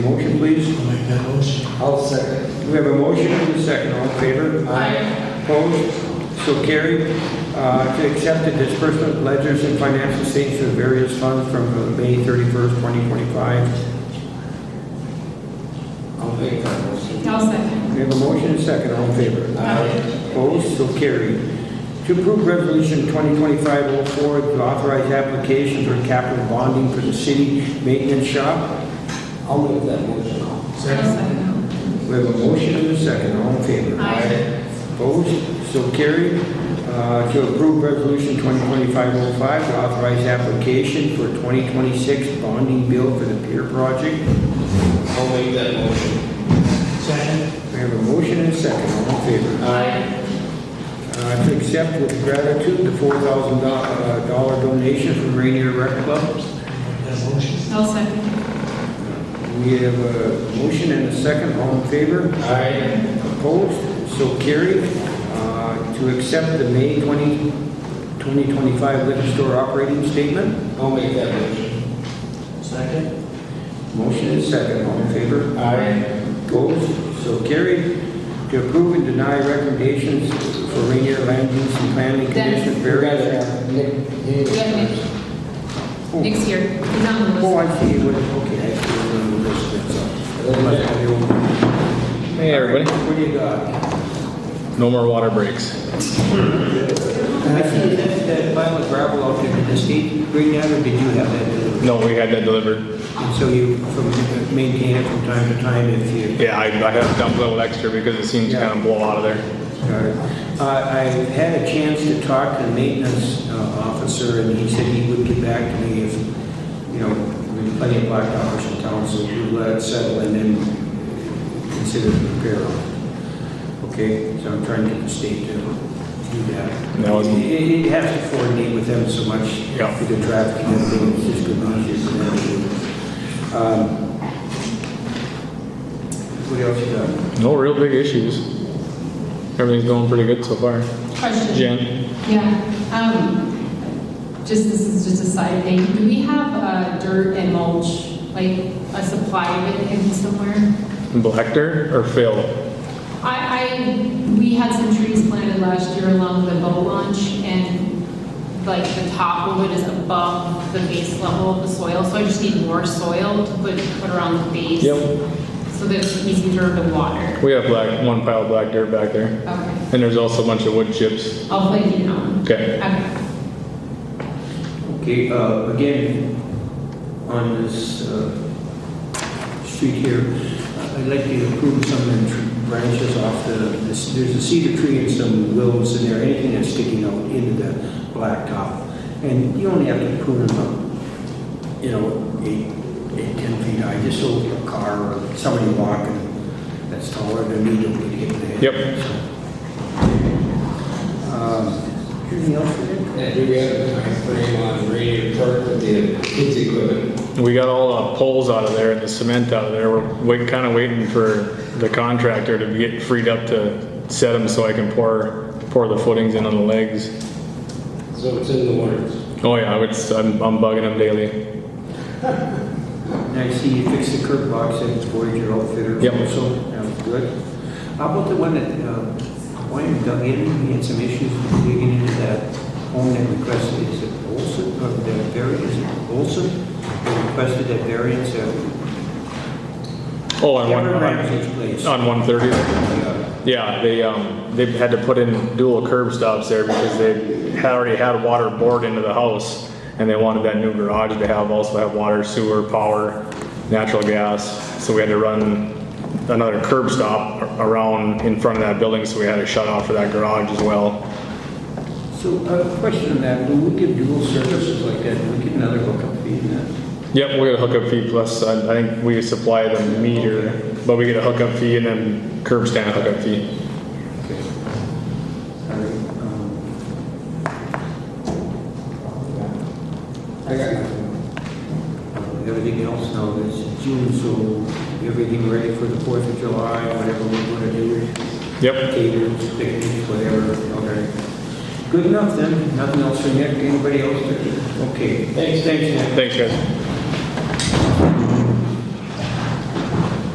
that motion. I'll second. We have a motion and a second, all in favor? Aye. Opposed? So carried. Uh, To accept the disbursement ledgers and financial statements of various funds from uh, May 31st, 2025. I'll make that motion. I'll second. We have a motion and a second, all in favor? Aye. Opposed? So carried. To approve Resolution 2025-04, to authorize application for capital bonding for the city maintenance shop. I'll make that motion. I'll Second. second. We have a motion and a second, all in favor? Aye. Opposed? So carried. Uh, To approve Resolution 2025-05, to authorize application for 2026 bonding bill for the pier project. I'll make that motion. Second. We have a motion and a second, all in favor? Aye. Uh, To accept with gratitude the $4,000 uh, dollar donation from Rainier Rec Club. That motion. I'll second. We have a motion and a second, all in favor? Aye. Opposed? So carried. Uh, To accept the May 20, 2025 liquor store operating statement. I'll make that motion. Second. Motion is second, all in favor? Aye. Opposed? So carried. To approve and deny recommendations for Rainier Land Use and Planning Dennis. Commission You're gonna various... have Nick, you need to- Yeah, Nick. Nick's here. He's on the Oh, list. I see, It was- okay, I see, it was on the list, that's all. That must be old. Hey, everybody. All right, What do you got? No more water breaks. I see that, that pile of gravel out there, did the state bring that, or did you have that delivered? No, we had that delivered. And so you from- uh, maintain it from time to time if you Yeah, I, I had to dump a little extra because it seems to kind of blow out of there. got it. Uh, I had a chance to talk to the maintenance uh, officer, and he said he would get back to me if, you know, there's plenty of black dollars in town, so we'll let it settle and then consider the repair on it. Okay, so I'm trying to get the state to do that. That was- It- It it has to coordinate with them so much. Yeah. With the traffic and everything, it's just good news, it's good news. Um, What else you got? No real big issues. Everything's going pretty good so far. Question. Jen? Yeah, um, just, this is just a side thing. Do we have, uh, dirt and mulch, like a supply of it in somewhere? Black dirt or fill? I, I, we had some trees planted last year along the boat launch, and like the top of it is above the base level of the soil, so I just need more soil to put, put around the base. Yep. So that it's easier to water. We have black, one pile of black dirt back there. Okay, And there's also a bunch of wood chips. I'll play you know. Okay. Okay, Okay, uh, again, on this uh, street here, I'd like you to prune some of the tr- branches off the, this- there's a cedar tree and some willows in there, anything that's sticking out into the blacktop. And you only have to prune them up, you know, eight, eight, 10 feet high, just so a car or somebody walking that's taller than me don't get hit in the head. Yep. Um, Anything else for you? And do we have a timeframe on radio park with the kids equipment? We got all the poles out of there and the cement out of there. We're wait, kind of waiting for the contractor to get freed up to set them so I can pour, pour the footings in on the legs. So it's in the works. Oh yeah, it's, I'm, I'm bugging them daily. And I see you fixed the curb box at Voyager Outfitter. Yep. So, that was good. How about the one that, uh, Wyman dug in, he had some issues digging into that home that requested, is it Olson, or the variance, is it Olson? They requested that variance, uh, Oh, on one, Kevin on Ramsey's place. on 130. Yeah. Yeah, they, um, they had to put in dual curb stops there because they had already had water bored into the house. And they wanted that new garage to have, also have water, sewer, power, natural gas. So we had to run another curb stop around in front of that building, so we had to shut off for that garage as well. So, uh, question on that, when we give dual services like that, do we get another hookup fee in that? Yep, we got a hookup fee plus, I, I think we supply the meter, but we get a hookup fee and then curb stand hookup fee. Okay. All right, um, I got nothing. Uh, Everything else now, it's June, so everything ready for the Fourth of July, whatever we want to do, Yep, caters, picnics, whatever, okay. Good enough then, nothing else for Nick, anybody else? Okay, thanks, thanks, Nick. thanks guys.